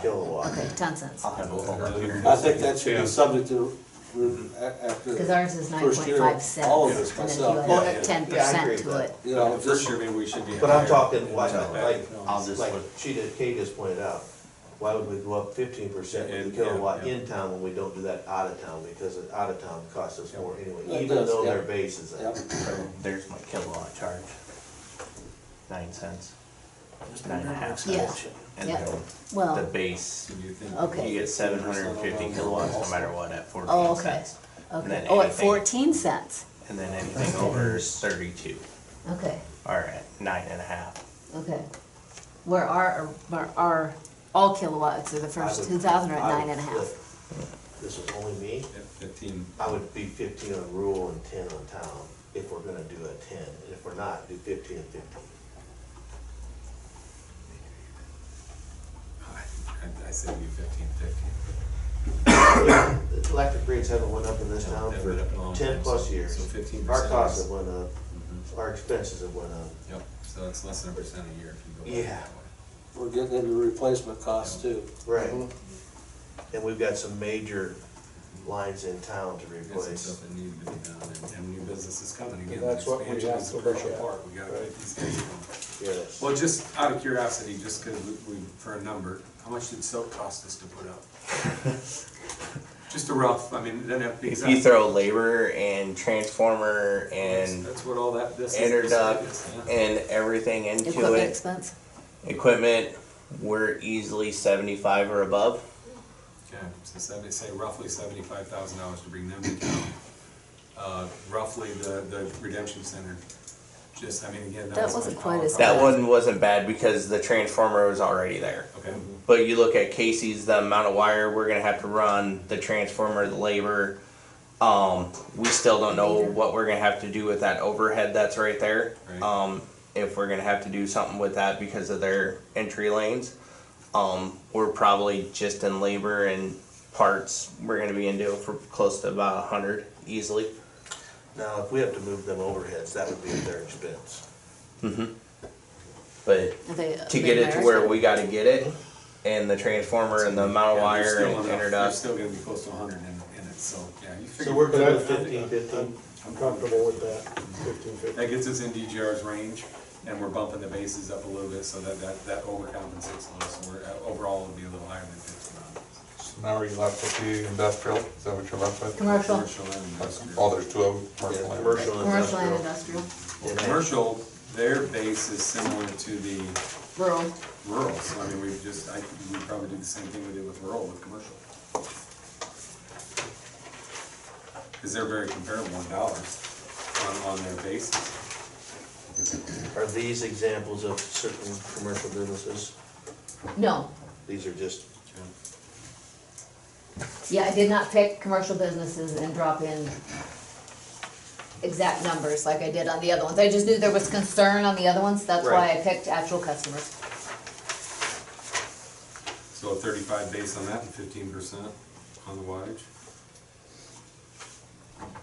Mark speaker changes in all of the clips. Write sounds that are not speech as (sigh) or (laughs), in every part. Speaker 1: kilowatt.
Speaker 2: Okay, ten cents.
Speaker 3: I'll have a little look here.
Speaker 4: I think that should be subject to, re- a- after.
Speaker 2: Because ours is nine
Speaker 4: first
Speaker 2: point
Speaker 4: year,
Speaker 2: five cents.
Speaker 4: All of this
Speaker 2: and if you
Speaker 4: myself,
Speaker 1: Oh,
Speaker 2: add
Speaker 1: yeah.
Speaker 2: Ten
Speaker 1: Yeah, I agree
Speaker 2: percent
Speaker 1: with
Speaker 2: to it.
Speaker 4: you know,
Speaker 3: First
Speaker 4: just,
Speaker 3: year, maybe we should be.
Speaker 1: But I'm
Speaker 3: higher.
Speaker 1: talking, why not, like,
Speaker 3: I'll just
Speaker 1: like
Speaker 3: look.
Speaker 1: she did, Kay just pointed out, why would we go up fifteen percent with the
Speaker 3: Yeah, yeah,
Speaker 1: kilowatt
Speaker 3: yeah.
Speaker 1: in town when we don't do that out of town? Because it out of town costs us more anyway,
Speaker 4: It
Speaker 1: even
Speaker 4: does,
Speaker 1: though
Speaker 4: yeah.
Speaker 1: their base is
Speaker 4: yeah,
Speaker 1: up.
Speaker 3: So There's my kilowatt charge. Nine cents. Nine and a half
Speaker 2: Yeah.
Speaker 3: cents. And
Speaker 2: Yeah.
Speaker 3: then the
Speaker 2: Well,
Speaker 3: base,
Speaker 4: you think-
Speaker 2: okay.
Speaker 3: you get seven hundred and fifty kilowatts no matter what at
Speaker 2: Oh,
Speaker 3: fourteen
Speaker 2: okay.
Speaker 3: cents. and
Speaker 2: Okay.
Speaker 3: then
Speaker 2: Oh, at
Speaker 3: anything-
Speaker 2: fourteen cents.
Speaker 3: And then anything over is thirty-two,
Speaker 2: Okay,
Speaker 3: or at nine and a half.
Speaker 2: okay. Where our, where our, all kilowatts are the first two thousand are at nine and a half.
Speaker 1: This is only me,
Speaker 5: Fifteen.
Speaker 1: I would be fifteen on rural and ten on town, if we're gonna do a ten, and if we're not, do fifteen and fifteen.
Speaker 5: I, I said you fifteen, fifteen.
Speaker 1: The Electric rates haven't went up in this
Speaker 5: No,
Speaker 1: town
Speaker 5: they
Speaker 1: for
Speaker 5: went up a long
Speaker 1: ten
Speaker 5: time,
Speaker 1: plus
Speaker 5: so-
Speaker 1: years.
Speaker 5: so 15%
Speaker 1: Our costs
Speaker 5: is-
Speaker 1: have went up,
Speaker 3: Mm-hmm.
Speaker 1: our expenses have went up.
Speaker 5: Yep, so that's less than a percent a year if you go
Speaker 1: Yeah.
Speaker 5: back that
Speaker 4: we're getting into replacement costs too.
Speaker 1: Right. And we've got some major lines in town to
Speaker 5: way. There's some
Speaker 1: replace.
Speaker 5: stuff that needed to be done and, and new business is coming again.
Speaker 4: That's what we
Speaker 5: Expansion
Speaker 4: have
Speaker 5: is
Speaker 4: to
Speaker 5: a crucial
Speaker 4: look at.
Speaker 5: part. We gotta get these guys going.
Speaker 1: Yes.
Speaker 5: Well, just out of curiosity, just cause we, we- for a number, how much did soap cost us to put
Speaker 3: (laughs)
Speaker 5: up? Just a rough, I mean, it doesn't have to be
Speaker 3: If
Speaker 5: exact.
Speaker 3: you throw labor and transformer and
Speaker 5: That's what all that, this is. this
Speaker 3: interduct
Speaker 5: is, yeah.
Speaker 3: and everything into
Speaker 2: Equipment
Speaker 3: it,
Speaker 2: expense?
Speaker 3: equipment, we're easily seventy-five or above.
Speaker 5: Okay, so seventy, say roughly seventy-five thousand dollars to bring them to town. Uh, roughly the, the redemption center, just, I mean, again,
Speaker 2: That
Speaker 5: that was.
Speaker 2: wasn't quite as
Speaker 3: That
Speaker 2: bad.
Speaker 3: one wasn't bad because the transformer was already there.
Speaker 5: Okay,
Speaker 3: But you look at Casey's, the amount of wire we're gonna have to run, the transformer, the labor. Um, we still don't know what we're gonna have to do with that overhead that's right there.
Speaker 5: Right.
Speaker 3: Um, if we're gonna have to do something with that because of their entry lanes. Um, we're probably just in labor and parts, we're gonna be into for close to about a hundred easily.
Speaker 1: Now, if we have to move them overheads, that would be at their expense.
Speaker 3: But
Speaker 2: Are they-
Speaker 3: to
Speaker 2: they
Speaker 3: get it to
Speaker 2: merit
Speaker 3: where we gotta get it and the transformer and the amount of
Speaker 5: Yeah,
Speaker 3: wire
Speaker 5: there's still
Speaker 3: and
Speaker 5: enough- There's
Speaker 3: interduct.
Speaker 5: still gonna be close to a hundred in, in it, so, yeah, you figure.
Speaker 1: So we're
Speaker 6: But I-
Speaker 1: good with fifteen, fifteen?
Speaker 6: I'm comfortable with that, fifteen fifty.
Speaker 5: That gets us in DGR's range, and we're bumping the bases up a little bit, so that, that, that overcompensates a little, so we're, uh, overall, it'll be a little higher than fifteen on this.
Speaker 7: So now are you left with the industrial, is that what you're left with?
Speaker 2: Commercial,
Speaker 5: Commercial and industrial.
Speaker 7: Oh, there's two of them, commercial
Speaker 1: Yeah,
Speaker 7: and
Speaker 1: commercial and
Speaker 2: commercial and
Speaker 1: industrial.
Speaker 2: industrial,
Speaker 5: Well, Commercial, their base is similar to the
Speaker 2: rural.
Speaker 5: rural, so I mean, we've just, I, we probably do the same thing we did with rural with commercial. Cause they're very comparable in dollars on, on their basis.
Speaker 1: Are these examples of certain commercial businesses?
Speaker 2: No,
Speaker 1: These are just,
Speaker 2: yeah, I did not pick commercial businesses and drop in exact numbers like I did on the other ones. I just knew there was concern on the other ones, that's why I
Speaker 1: Right.
Speaker 2: picked actual customers.
Speaker 5: So a thirty-five base on that and fifteen percent on the wattage.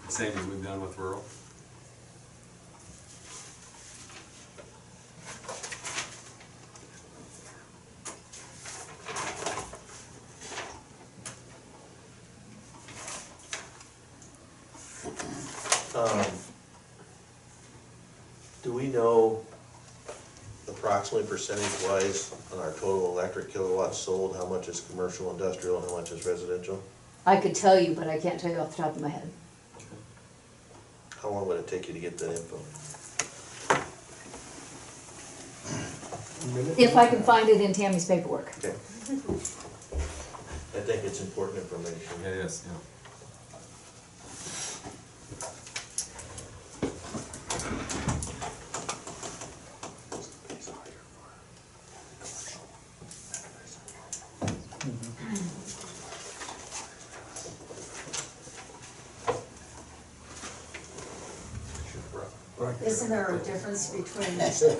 Speaker 5: Same as we've done with rural.
Speaker 1: um, do we know approximately percentage wise on our total electric kilowatts sold, how much is commercial, industrial, and how much is residential?
Speaker 2: I could tell you, but I can't tell you off the top of my head.
Speaker 1: How long would it take you to get that info?
Speaker 2: If I can find it in Tammy's paperwork.
Speaker 1: Okay. I think it's important information.
Speaker 5: yes, yeah.
Speaker 8: Isn't there a difference between commercial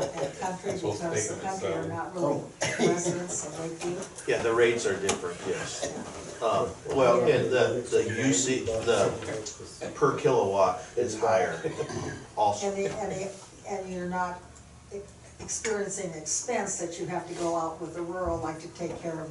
Speaker 8: and country, because the country are not really residents of Lakeview?
Speaker 1: Yeah, the rates are different, yes. Um, Well, and the, the UC, the per kilowatt is higher also.
Speaker 8: And the, and the, and you're not experiencing expense that you have to go out with the rural, like to take care of